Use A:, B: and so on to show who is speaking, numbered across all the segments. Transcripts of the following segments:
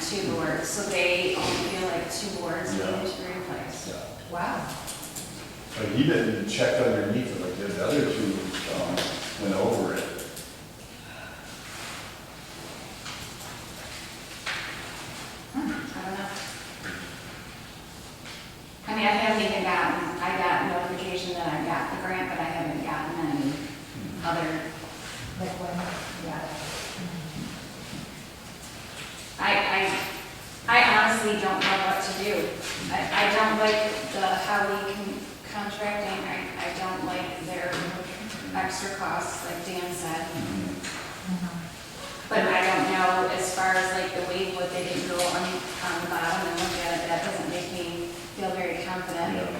A: two boards, so they only feel like two boards
B: Yeah.
A: need to be replaced.
C: Wow.
B: But he didn't check underneath it, like the other two, um, went over it.
A: I don't know. I mean, I haven't even gotten, I got notification that I got the grant, but I haven't gotten any other,
C: Like when,
A: yeah. I, I, I honestly don't know what to do. I, I don't like the, how we can contracting, I, I don't like their extra costs, like Dan said. But I don't know, as far as like the weight, what they did go on, on the bottom and look at it, that doesn't make me feel very confident.
B: Yeah.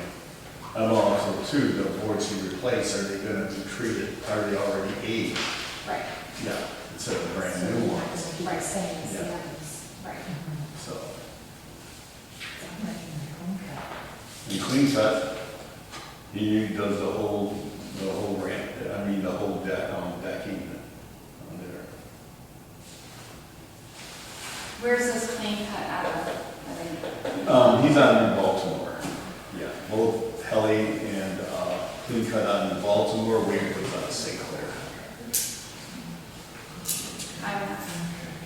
B: And also too, the boards you replace, are they gonna be treated, are they already aged?
A: Right,
B: Yeah. Instead of brand new ones,
C: just keep saying it's the others.
A: right.
B: so.
C: I'm not even going there.
B: He cleans that, he does the whole, the whole ramp, I mean, the whole deck, um, decking on there.
A: Where's this clean cut out of? I think-
B: Um, he's out in Baltimore. Yeah, both Helly and, uh, Clean Cut out in Baltimore, Wade was out of St. Clair.
A: I don't know.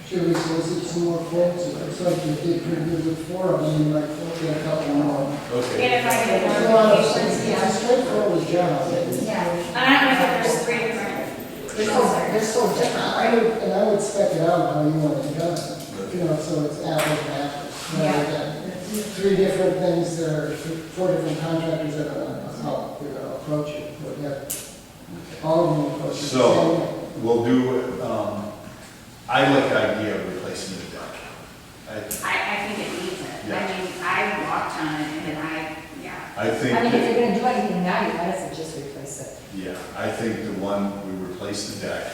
D: Should we solicit some more quotes? It looks like you did pretty good with four of them, you might get a couple more.
A: And
B: Okay.
A: if I get
D: It's a lot of-
A: notifications,
D: It's a
A: yeah.
D: straightforward job.
C: Yeah.
A: And I don't know if there's three different.
C: They're so, they're so different,
D: I
C: right?
D: would, and I would spec it out how you want it done, you know, so it's apples and apples. rather than Three different things, that are four different contractors that are, how you're gonna approach it, but yeah, all of them approach it. the same way.
B: So, we'll do, um, I like the idea of replacing the deck. I,
A: I, I think it needs it. I
B: Yeah.
A: mean, I walked on it and I, yeah.
B: I think,
C: I mean, if
B: that-
C: you're gonna do anything now, you might as well just replace it.
B: yeah, I think the one, we replace the deck.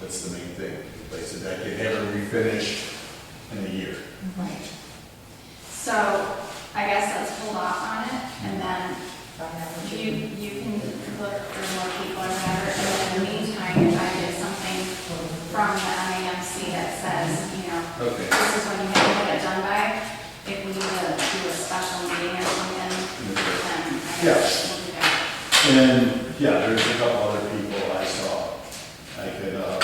B: That's the main thing, replace the deck, and have it refinished in a year.
C: Right.
A: So I guess let's hold off on it and then
C: um,
A: you, you can look for more people or whatever. And in the meantime, if I get something from the MAMC that says, you know,
B: Okay.
A: this is when you have to get it done by, if we need to do a special meeting or something, then I guess we'll do that.
B: And then, yeah, there's a couple other people I saw. I could, uh.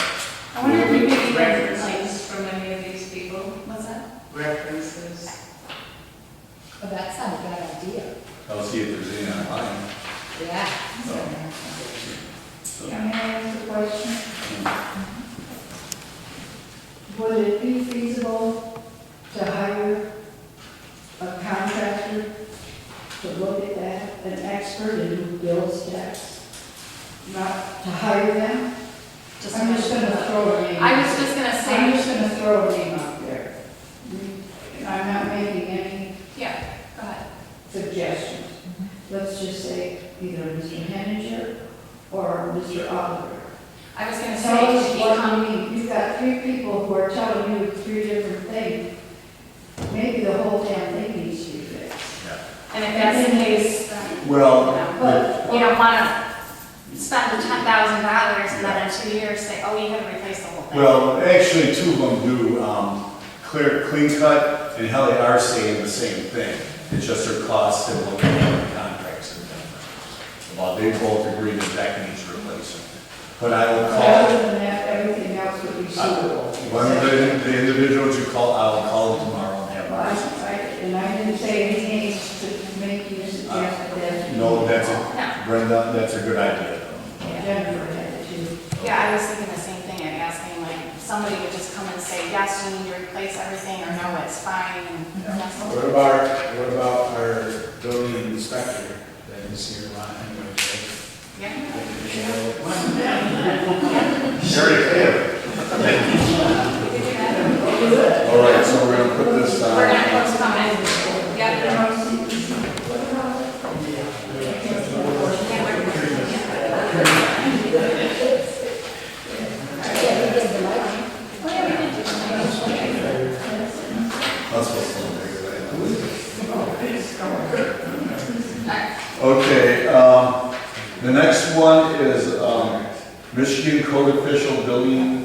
A: I wonder if we could even, like,
E: References from any of these people?
A: what's that?
E: References?
C: Well, that's not a bad idea.
B: I'll see if there's any online.
C: Yeah.
B: So,
F: Can I ask a question? Would it be feasible to hire a contractor to look at that, an expert in who builds decks? Not to hire them?
A: Just-
F: I'm just gonna throw a name.
A: I was just gonna
F: I'm
A: say,
F: just gonna throw a name out there. I'm not making any
A: yeah, go ahead.
F: suggestions. Let's just say either Mr. Henninger or Mr. Oliver.
A: I was gonna
F: Tell
A: say,
F: us
A: should we
F: what
A: come-
F: you mean, you've got three people who are telling you three different things. Maybe the whole damn thing needs to be fixed.
A: and if that's the case, then,
B: Well, but-
A: you don't wanna spend ten thousand dollars and then in two years say, oh, you had to replace the whole thing.
B: well, actually, two of them do, um, clear, clean cut, and Helly are saying the same thing. It's just their costs and what the contracts and different. Well, they both agree that that needs replacement. But I will call,
F: Other than that, everything else would be suitable.
B: one of the, the individuals you call, I will call them tomorrow and have
F: I-
B: my.
F: I- And I didn't say anything to make you suggest that.
B: No, that's
A: No.
B: a, Brenda, that's a good idea.
F: Jennifer had it too.
A: Yeah, I was thinking the same thing, and asking, like, somebody would just come and say, yes, you need to replace everything, or no, it's fine, and that's all.
G: What about, what about our building inspector that is here a lot anyway?
A: Yeah.
B: Sure you can.
A: we could do that.
B: All right, so we're gonna put this,
A: We're
B: uh,
A: gonna postpone it. Yeah.
C: Yeah, we did the lighting.
A: Oh,
B: that's what's on there. Okay, um, the next one is, um, Michigan Code Official Building